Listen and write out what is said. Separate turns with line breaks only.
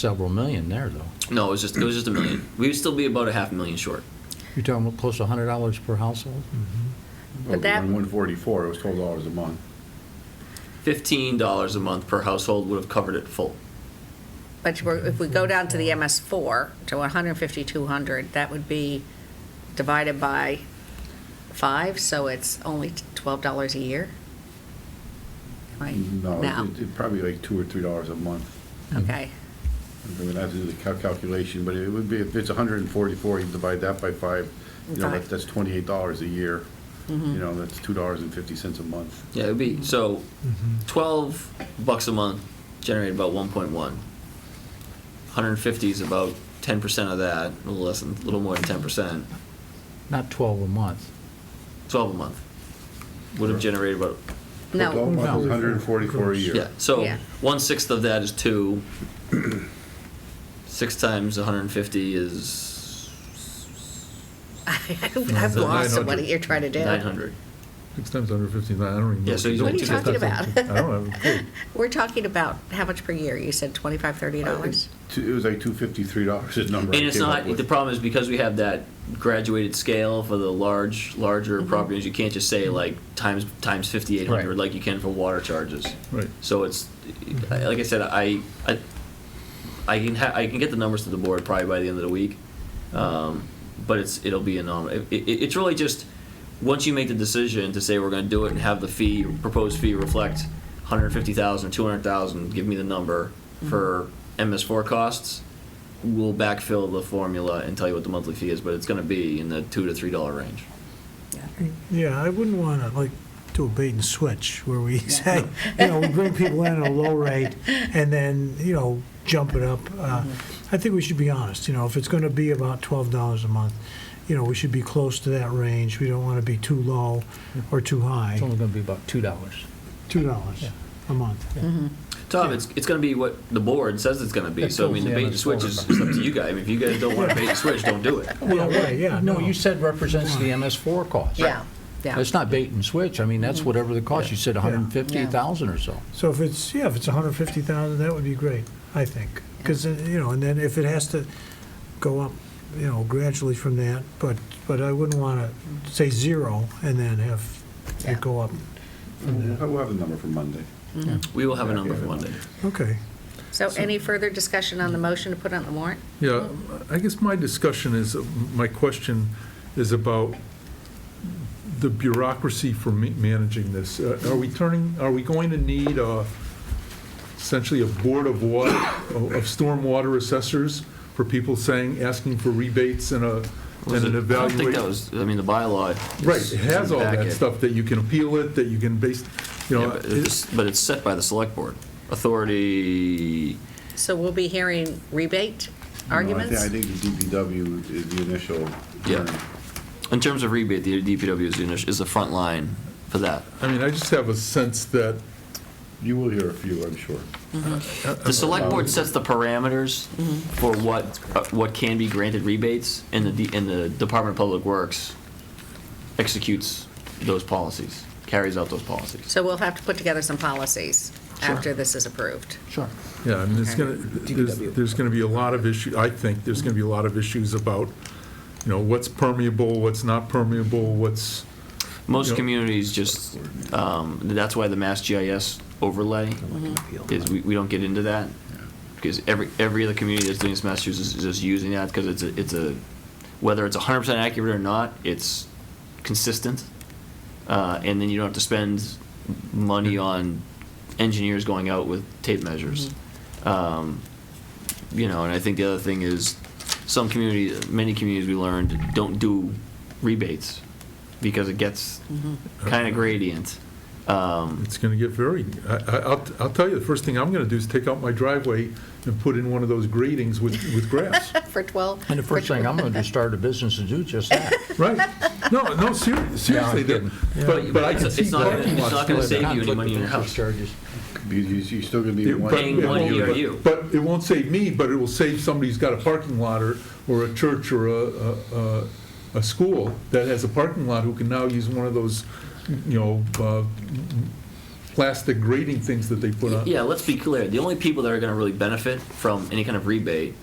several million there, though.
No, it was just it was just a million. We would still be about a half a million short.
You're talking about close to hundred dollars per household?
But that-
One forty-four, it was twelve dollars a month.
Fifteen dollars a month per household would have covered it full.
But we're- if we go down to the MS4, to 150, 200, that would be divided by five, so it's only $12 a year? Right,
Mm-hmm. No,
now,
it- it probably like two or three dollars a month.
okay.
I would have to do the cal- calculation, but it would be, if it's hundred and forty-four, you divide that by five, you know,
Five. Mm-hmm.
that- that's twenty-eight dollars a year. You know, that's two dollars and fifty cents a month.
Yeah, it would be so twelve bucks a month generated about one point one. Hundred and fifty is about ten percent of that, a little less than a little more than ten percent.
Not twelve a month.
Twelve a month. Would have generated about
Mm-hmm.
No,
No.
Hundred and forty-four a year.
yeah. So
Yeah.
one sixth of that is two. Six times one hundred and fifty is
I've lost what you're trying to do.
nine hundred.
Six times under fifteen, I don't even know.
Yeah, so he's
What are you
Six
talking about?
I don't have a clue.
We're talking about how much per year? You said 25, 30 dollars?
Two- It was like two fifty-three dollars a number. I
And it's
came up
not,
with.
the problem is because we have that graduated scale for the large, larger properties, you can't just say like times, times fifty-eight hundred
Right.
like you can for water charges.
Right.
So it's, I- like I said, I, I, I can ha, I can get the numbers to the board probably by the end of the week. Um, but it's, it'll be a nom, it, it, it's really just, once you make the decision to say we're gonna do it and have the fee, proposed fee reflect hundred fifty thousand, two hundred thousand, give me the number for MS four costs, we'll backfill the formula and tell you what the monthly fee is, but it's gonna be in the two to three dollar range.
Yeah, I wouldn't want to, like, do a bait and switch where we say, you know, we bring people in at a low rate and then, you know, jump it up. Uh, I think we should be honest, you know, if it's going to be about $12 a month, you know, we should be close to that range. We don't want to be too low or too high.
It's only gonna be about two dollars.
$2 a month.
Tom, it's, it's gonna be what the board says it's gonna be, so I mean, the
Yeah,
bait and
that's
switch is, is up to you guys, I mean, if you guys don't wanna bait and switch, don't do it.
Yeah, right, yeah,
No,
no.
you said represents the MS four cost.
Yeah, yeah.
It's not bait and switch. I mean,
Mm-hmm.
that's whatever the cost. You said a hundred and fifty thousand or so.
So if it's, yeah, if it's 150,000, that would be great, I think. Because, you know, and then if it has to go up, you know, gradually from that, but, but I wouldn't want to say zero and then have
Yeah.
it go up.
We'll we'll have the number for Monday.
We will have a number for Monday.
Okay.
So any further discussion on the motion to put on the warrant?
Yeah, I guess my discussion is, my question is about the bureaucracy for ma- managing this. Uh, Are we turning, are we going to need uh, essentially a board of water, of stormwater assessors for people saying, asking for rebates and a, and an
I don't think that
evaluation?
was, I mean, the bylaw. is-
Right,
is
it
in
has
the
all that
packet.
stuff, that you can appeal it, that you can base, you
Yeah,
know.
but
it's-
it's, but it's set by the select board. Authority,
So we'll be hearing rebate
You know, I thi-
arguments?
I think the DPW is the initial.
Yeah.
term.
in terms of rebate, the DPW is the, init- is the front line for that.
I mean, I just have a sense that
You will hear a few, I'm sure.
The select board sets the parameters for what, uh, what can be granted rebates, and the, D- and the Department of Public Works executes those policies, carries out those policies.
So we'll have to put together some policies after this is approved.
Sure.
Yeah, I mean, it's gonna, there's,
DPW.
there's gonna be a lot of issue, I think there's gonna be a lot of issues about, you know, what's permeable, what's not permeable, what's,
Most
Yep.
communities just, um, that's why the Mass GIS overlay is, we, we don't get into that. Because every, every other community that's doing this in Massachusetts is just using that, because it's, a- it's a, whether it's hundred percent accurate or not, it's consistent. Uh, and then you don't have to spend money on engineers going out with tape measures. Um, you know, and I think the other thing is, some community, many communities we learned, don't do rebates, because it gets kind of gradient. Um,
it's gonna get very, I, I, I'll, I'll tell you, the first thing I'm gonna do is take out my driveway and put in one of those gratings with, with grass.
For 12?
And the first thing, I'm gonna just start a business to do just that.
Right? No, no, seriously, seriously, that-
kidding.
but, but I can
It's-
see
it's not-
parking
it's
lots
not gonna
doing
save
that.
you any money in your
Conflict of
house.
interest charges.
Because you're still going to be.
It-
in
but-
one-
Paying one
but-
year.
but-
ERU.
But it won't save me, but it will save somebody who's got a parking lot or, or a church or a, a, a- a school that has a parking lot who can now use one of those, you know, uh, plastic grating things that they put on.
Yeah, let's be clear. The only people that are going to really benefit from any kind of rebate